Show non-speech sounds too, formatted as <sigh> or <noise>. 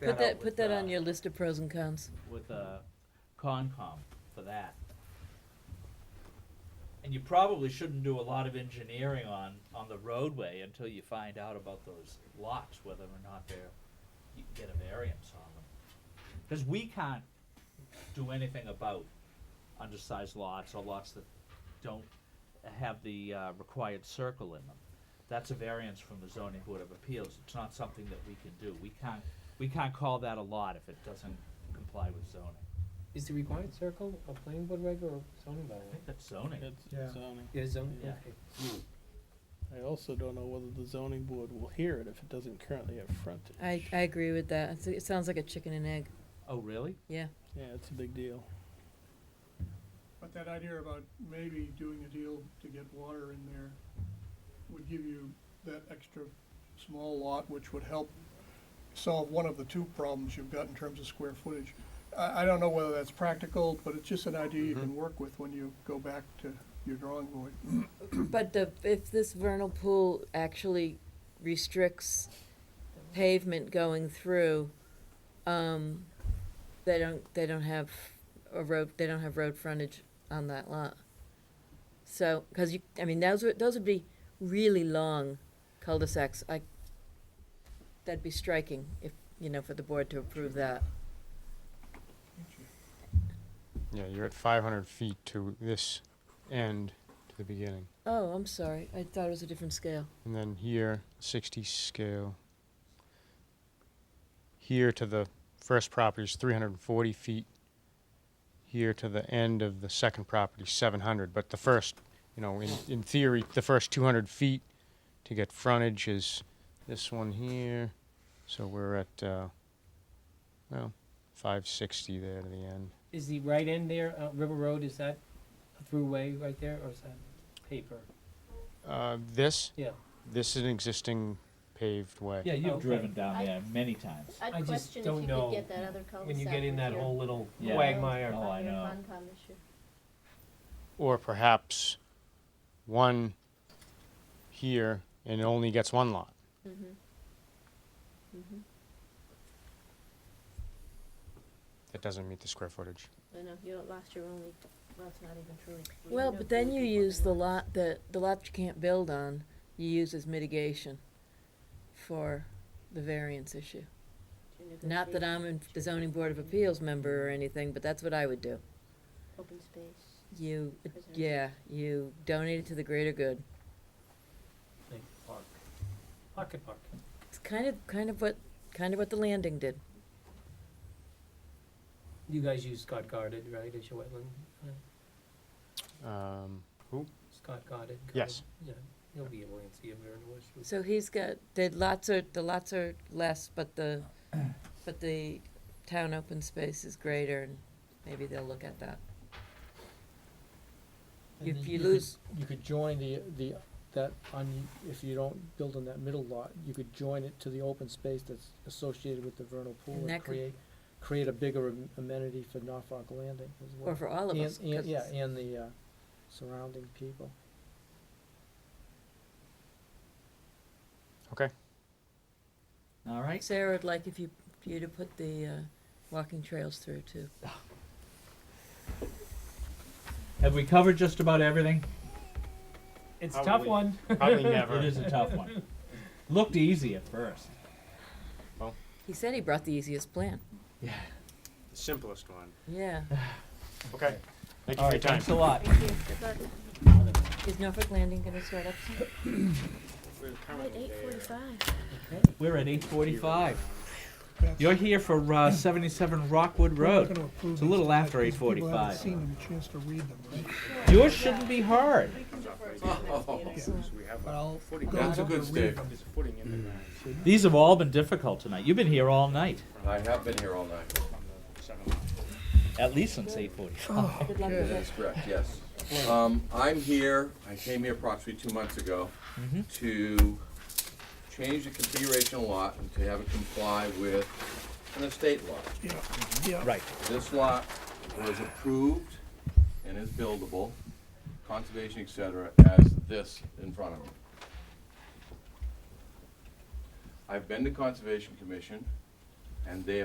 Put that, with, put that uh, on your list of pros and cons. With uh, Concom for that. And you probably shouldn't do a lot of engineering on, on the roadway until you find out about those lots, whether or not they're, you can get a variance on them. Cause we can't do anything about undersized lots or lots that don't have the, uh, required circle in them. That's a variance from the zoning board of appeals, it's not something that we can do, we can't, we can't call that a lot if it doesn't comply with zoning. Is the required circle a planning board reg or zoning I bylaw? think that's zoning. It's Yeah. zoning. Yeah, zoning, Yeah. okay. I also don't know whether the zoning board will hear it if it doesn't currently have frontage. I, I agree with that. It's- It sounds like a chicken and egg. Oh, really? <clears throat> Yeah. Yeah, it's a big deal. But that idea about maybe doing a deal to get water in there would give you that extra small lot, which would help solve one of the two problems you've got in terms of square footage. I, I don't know whether that's practical, but it's just an idea you can work with when you go back to your drawing board. But the, if this vernal pool actually restricts pavement going through, um, they don't, they don't have a road, they don't have road frontage on that lot. So, cause you, I mean, those would, those would be really long cul-de-sacs. I, that'd be striking if, you know, for the board to approve that. Yeah, you're at five hundred feet to this end, to the beginning, Oh, I'm sorry. I thought it was a different scale. and then here, sixty scale. Here to the first property is three hundred and forty feet. Here to the end of the second property, seven hundred, but the first, you know, in, in theory, the first two hundred feet to get frontage is this one here, so we're at, uh, well, five sixty there to the end. Is the right end there, uh, River Road, is that a throughway right there, or is that paper? Uh, this? Yeah. Oh, This is an existing paved way. Yeah, you've Okay. driven down I- there many times. I I'd just question if don't you know could get that other cul-de-sac. When you get in with that your- whole little Yeah. quagmire. Oh, I your know. Concom issue. Or perhaps one here and it only gets one lot. Mhm. Mhm. That doesn't meet the square footage. I know, you lost your only, well, it's not even truly. Well, but then you use the lot that, the lot you can't build on, you use as mitigation for the variance issue. Not that I'm in the zoning board of appeals member or anything, but that's what I would do. Open space. You, yeah, you donate it to the greater good. Like park, pocket park. It's kind of, kind of what, kind of what the landing did. You guys use Scott Guarded, right, as your wetland? uh, <laughs> Um, Scott Guarded? Yes. Yeah, he'll be able to answer your very question. So he's got, the lots are, the lots are less, but the, but the town open space is greater, and maybe they'll look at that. You, you lose, you could join the, the, that, un if you don't build on that middle lot, you could join it to the open space that's associated with the vernal pool And that and could- create, create a bigger am- amenity for Norfolk Landing as well. or for all of And- us. and- 'cause yeah, and the, uh, surrounding people. okay. All right. Sarah would like if you, for you to put the, uh, walking trails through too. Have we covered just about everything? It's a tough Probably. one. Probably It never. is a tough <laughs> one. Looked easy at first. He said he brought the easiest plan. Yeah. Simplest one. <laughs> Yeah, Okay. Thank you All for right, your time. thanks a lot. Thank you, good luck. is Norfolk Landing gonna start up soon? At eight forty-five. We're at eight forty-five. You're here for, uh, seventy-seven Rockwood Road. It's a little after People haven't 8:45. seen them, a chance to read them, right? Yours shouldn't be hard. But I'll go That's a over good and stick. read them. These have all been difficult tonight. You've been here all night, I have been here all night. at least since eight Oh, forty-five. Good luck with That's correct, yes. Um, I'm here, I came here approximately two months ago to change the configuration of lot and to have it comply with an estate law. Yeah, yeah. Right. This lot was approved and is buildable, conservation, et cetera, as this in front of me. I've been to Conservation Commission. and they